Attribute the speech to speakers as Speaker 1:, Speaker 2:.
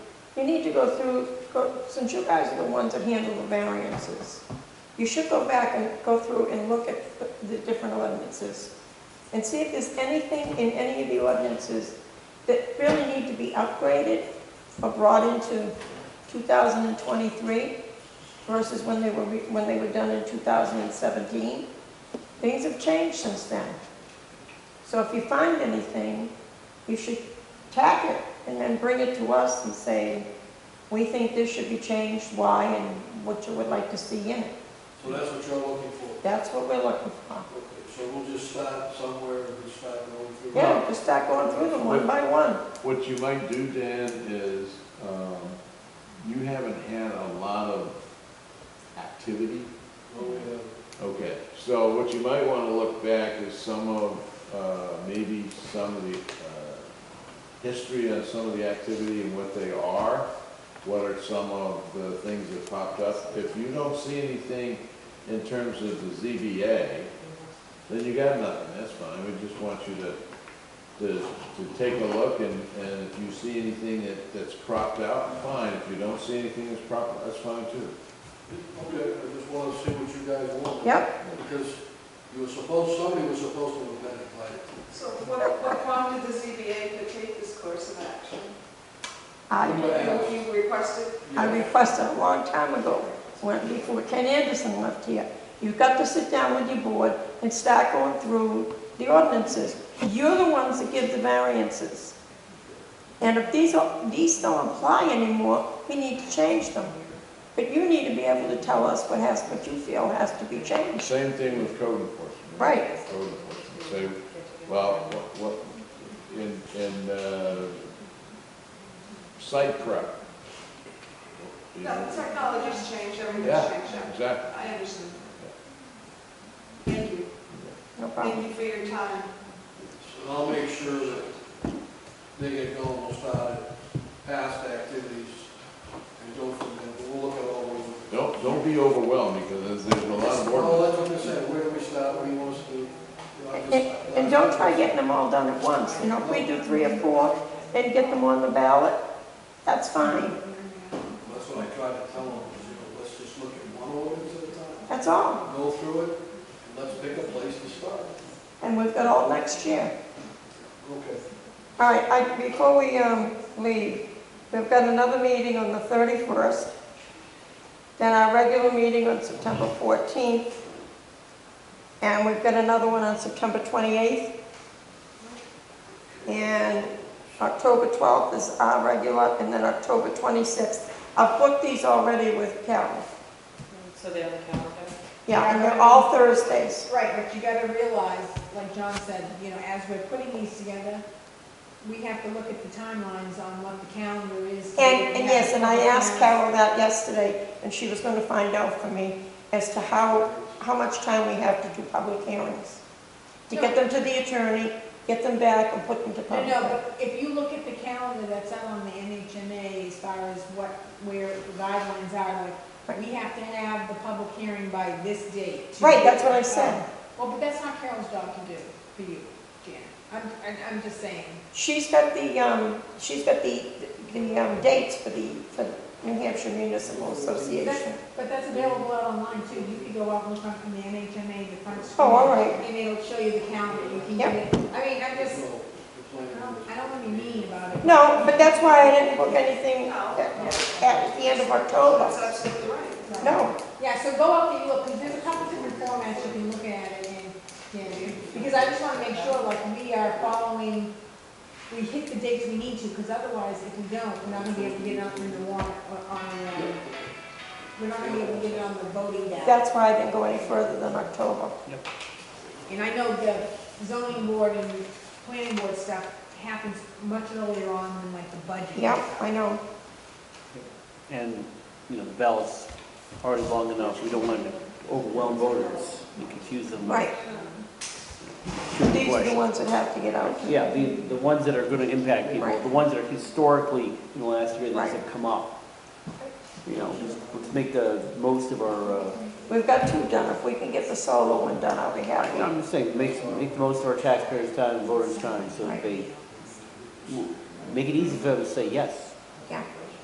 Speaker 1: You need to go through, go- since you guys are the ones that handle the variances, you should go back and go through and look at the- the different ordinances and see if there's anything in any of the ordinances that really need to be upgraded or brought into 2023 versus when they were, re- when they were done in 2017. Things have changed since then. So if you find anything, you should tack it and then bring it to us and say, we think this should be changed, why, and what you would like to see in it.
Speaker 2: So that's what you're looking for.
Speaker 1: That's what we're looking for.
Speaker 2: Okay, So we'll just start somewhere and just start going through.
Speaker 1: Yeah, just start going through them one by one.
Speaker 3: What you might do, Dan, is, um, you haven't had a lot of activity.
Speaker 2: Well, we have-
Speaker 3: Okay. So what you might want to look back is some of, uh, maybe some of the, uh, history on some of the activity and what they are. What are some of the things that popped up? If you don't see anything in terms of the ZBA, then you got nothing, that's fine. We just want you to, to, to take a look and, and if you see anything that, that's cropped out, fine. If you don't see anything that's cropped, that's fine too.
Speaker 2: Okay, I just wanted to see what you guys want.
Speaker 1: Yep.
Speaker 2: Because you were supposed, somebody was supposed to have been invited.
Speaker 4: So what, what prompted the ZBA to take this course of action?
Speaker 1: I,
Speaker 4: You you requested,
Speaker 1: I
Speaker 2: Yeah.
Speaker 1: requested a long time ago, when, before Ken Anderson left here. You've got to sit down with your board and start going through the ordinances. You're the ones that give the variances. And if these, are- these don't apply anymore, we need to change them. But you need to be able to tell us what has, what you feel has to be changed.
Speaker 3: Same thing with code enforcement.
Speaker 1: Right.
Speaker 3: Code enforcement, say, well, what, what- in, in, uh, site prep. You
Speaker 4: no,
Speaker 3: know,
Speaker 4: the technology's changed, everything's changed.
Speaker 3: Yeah, exactly.
Speaker 4: I understand. Thank you.
Speaker 1: No problem.
Speaker 4: Thank you for your time.
Speaker 2: And I'll make sure that they get going, we'll start at past activities and go from there, but we'll look at all of them.
Speaker 3: Don't, don't be overwhelmed because there's, there's a lot of
Speaker 2: Well,
Speaker 3: work.
Speaker 2: that's what I'm saying, where do we start, what do you want us to do? You know, I
Speaker 1: And,
Speaker 2: just-
Speaker 1: and don't try getting them all done at once. You know, if we do three or four and get them on the ballot, that's fine.
Speaker 2: That's what I try to tell them, is, you know, let's just look at one ordinance at a time,
Speaker 1: That's all.
Speaker 2: go through it, and let's pick a place to start.
Speaker 1: And we've got all next year.
Speaker 2: Okay.
Speaker 1: All right, I, before we, um, leave, we've got another meeting on the thirty-first, then our regular meeting on September fourteenth, and we've got another one on September twenty-eighth. And October twelfth is our regular, and then October twenty-sixth. I've booked these already with Carol.
Speaker 5: So they're on the calendar?
Speaker 1: Yeah, and they're all Thursdays.
Speaker 6: Right, but you gotta realize, like John said, you know, as we're putting these together, we have to look at the timelines on what the calendar is.
Speaker 1: And, and yes, and I asked Carol that yesterday, and she was gonna find out for me as to how,
Speaker 6: Oh,
Speaker 1: how much time we have to do public hearings. To get them to the attorney, get them back and put them to
Speaker 6: No,
Speaker 1: public.
Speaker 6: no, but if you look at the calendar that's out on the NHMA as far as what, where the guidelines are, like, we have to have the public hearing by this date. to-
Speaker 1: Right, that's what I said.
Speaker 6: Well, but that's not Carol's job to do for you, Jan. I'm, I'm- I'm just saying.
Speaker 1: She's got the, um, she's got the, the, um, dates for the, for the New Hampshire Municipal Association.
Speaker 6: That- But that's available out online too. You can go out and look up from the NHMA, the front screen.
Speaker 1: Oh, all right,
Speaker 6: And it'll show you the calendar, you can get it. I mean, I just,
Speaker 2: So, the plan
Speaker 6: I
Speaker 2: is-
Speaker 6: don't, I don't wanna be mean about it.
Speaker 1: no, but that's why I didn't book anything
Speaker 4: No.
Speaker 1: at, at the end of
Speaker 4: That's
Speaker 1: October,
Speaker 4: absolutely right.
Speaker 6: Right.
Speaker 1: no.
Speaker 6: Yeah, so go up and look, because there's a couple different formats you can look at it in, you know, because I just wanna make sure, like, we are following, we hit the dates we need to, because otherwise, if we don't, we're not gonna be able to get it on the warrant, or on, uh, we're not gonna be able to get it on the voting ballot.
Speaker 1: That's why I didn't go any further than October.
Speaker 6: And I know the zoning board and planning board stuff happens much earlier on than like the budget.
Speaker 1: Yeah, I know.
Speaker 7: And, you know, the ballot's already long enough, we don't want to overwhelm voters and confuse them. with
Speaker 1: Right,
Speaker 7: too many
Speaker 1: these are the
Speaker 7: questions.
Speaker 1: ones that have to get out.
Speaker 7: Yeah, the, the ones that are going to impact people,
Speaker 1: Right.
Speaker 7: the ones that are historically, in the last year,
Speaker 1: Right.
Speaker 7: these have come up. You know, let's- let's make the most of our, uh,
Speaker 1: We've got two done, if we can get the solo one done, I'll be happy.
Speaker 7: I'm just saying, make, make the most of our taxpayers' time, and voters' time, so that they, make it easy for them to say yes.
Speaker 1: Yeah,